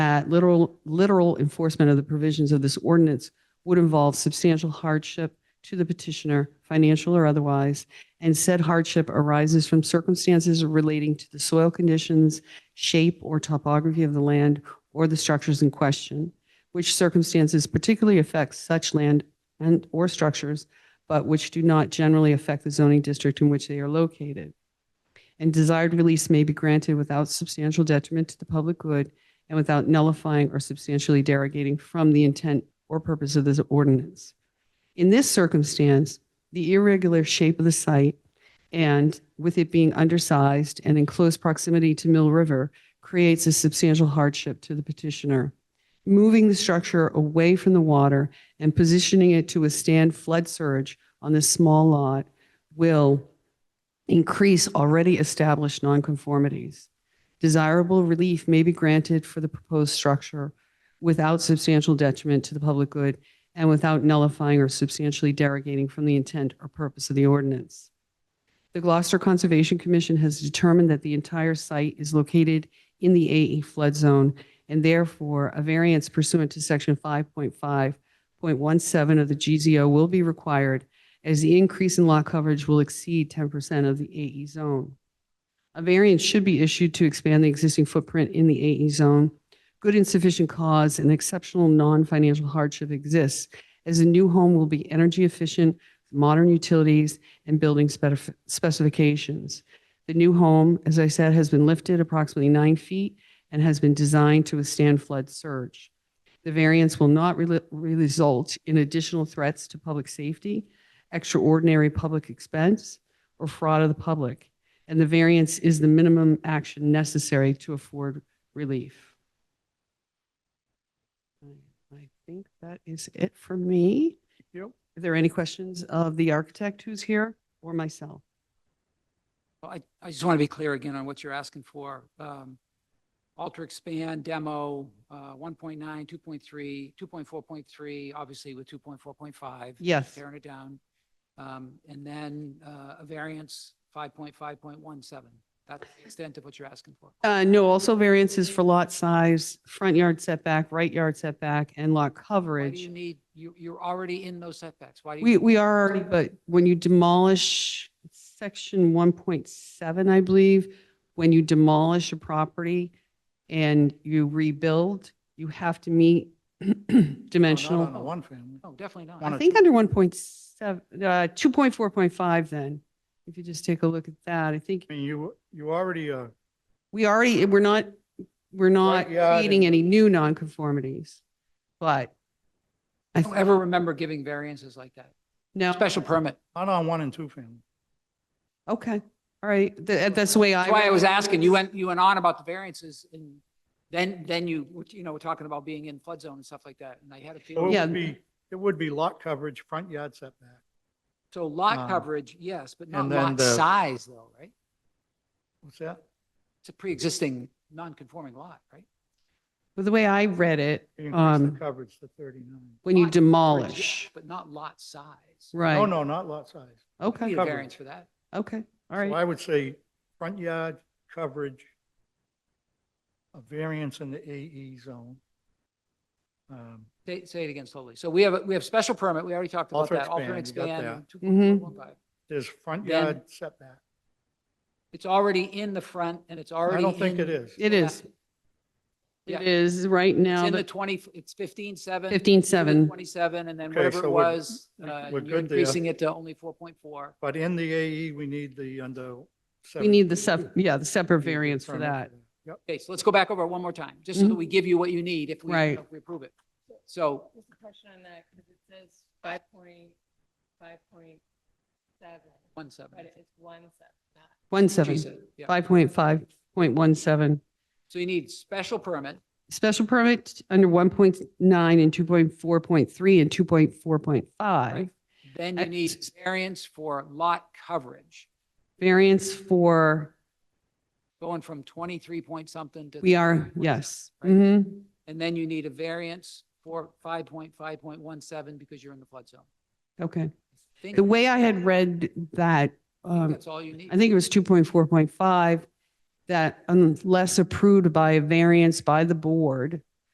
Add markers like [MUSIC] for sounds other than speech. that literal, literal enforcement of the provisions of this ordinance would involve substantial hardship to the petitioner, financial or otherwise, and said hardship arises from circumstances relating to the soil conditions, shape or topography of the land or the structures in question, which circumstances particularly affect such land and or structures, but which do not generally affect the zoning district in which they are located. And desired release may be granted without substantial detriment to the public good and without nullifying or substantially derogating from the intent or purpose of this ordinance. In this circumstance, the irregular shape of the site and with it being undersized and in close proximity to Mill River creates a substantial hardship to the petitioner. Moving the structure away from the water and positioning it to withstand flood surge on this small lot will increase already established nonconformities. Desirable relief may be granted for the proposed structure without substantial detriment to the public good and without nullifying or substantially derogating from the intent or purpose of the ordinance. The Gloucester Conservation Commission has determined that the entire site is located in the AE flood zone, and therefore a variance pursuant to Section 5.5.17 of the GZO will be required as the increase in lot coverage will exceed 10% of the AE zone. A variance should be issued to expand the existing footprint in the AE zone. Good and sufficient cause and exceptional non-financial hardship exists as the new home will be energy efficient, modern utilities, and building spef- specifications. The new home, as I said, has been lifted approximately nine feet and has been designed to withstand flood surge. The variance will not re- result in additional threats to public safety, extraordinary public expense, or fraud of the public, and the variance is the minimum action necessary to afford relief. I think that is it for me. Yep. Are there any questions of the architect who's here or myself? Well, I, I just want to be clear again on what you're asking for. Um, Alter, expand, demo, uh, 1.9, 2.3, 2.4.3, obviously with 2.4.5. Yes. Tearing it down. Um, And then uh, a variance, 5.5.17. That's the extent of what you're asking for. Uh, no, also variances for lot size, front yard setback, right yard setback, and lot Why do coverage. you need, you, you're already in those setbacks. Why do you? We, we are already, but when you demolish section one point seven, I believe, when you demolish a property and you rebuild, you have to meet [CLEARS THROAT] Not on the dimensional. one family. Oh, No, definitely not. One I or think under one point seven, uh, two point four point five then, if you just take a look at that, I think I mean, you, you already, uh, we already, we're not, we're not Right yard creating and- any new nonconformities. But I, I don't th- ever remember giving variances like that. no, Special permit. not on one and two family. okay, all right, Th- that's the way I. That's why I was asking, you went, you went on about the variances and then, then you, were, you know, were talking about being in flood zone and stuff like that. And I had a So it feeling, Yeah. would be, it would be lot coverage, front yard setback. so lot Uh, coverage, yes, but not and then lot the- size though, right? What's that? It's a pre-existing non-conforming lot, right? But The way I read it, Increase the um, coverage to 39. when you Lot coverage, demolish, yes, But not lot size. No, right, no, not lot size. You okay, Need a coverage. variance for that. okay, all So right, I would say front yard, coverage, a variance in the AE zone. Um, Say, say it again slowly. So we have, a- we have special permit. We already talked about Alter that. Alter and expand, you got expand. Mhm. 2.415. There's front Then- yard setback. It's already in the front and it's already. I don't think in- it is. it is, Yeah. it is right It's now, in the 20, it's 15, 7. fifteen to the seven, 27, and then Okay, whatever so it we're- was, uh, we're you're good there. increasing it to only 4.4. But in the AE, we need the under. we need the sep, yeah, the separate variance for that, Yep. Okay, so let's go back over it one more time, just so that we give you what you need if we, Mm-hmm. Right. if we approve it. So, Just a question on that, because it says five point, five point seven, one seven. but it's one seven, not one She seven, said, yeah. five point five point one seven. So you need special permit, Special permit under one point nine and two point four point three and two point four point five. Right. then Uh, you need s- variance for lot coverage, Variance for, going from 23 point something to. we are, 3.7, yes. right? Mhm. And then you need a variance for 5.5.17 because you're in the flood zone. Okay. I think- The way I had read that, I think um, That's all you need. I think it was two point um, four point five, that unless approved by a variance by the board,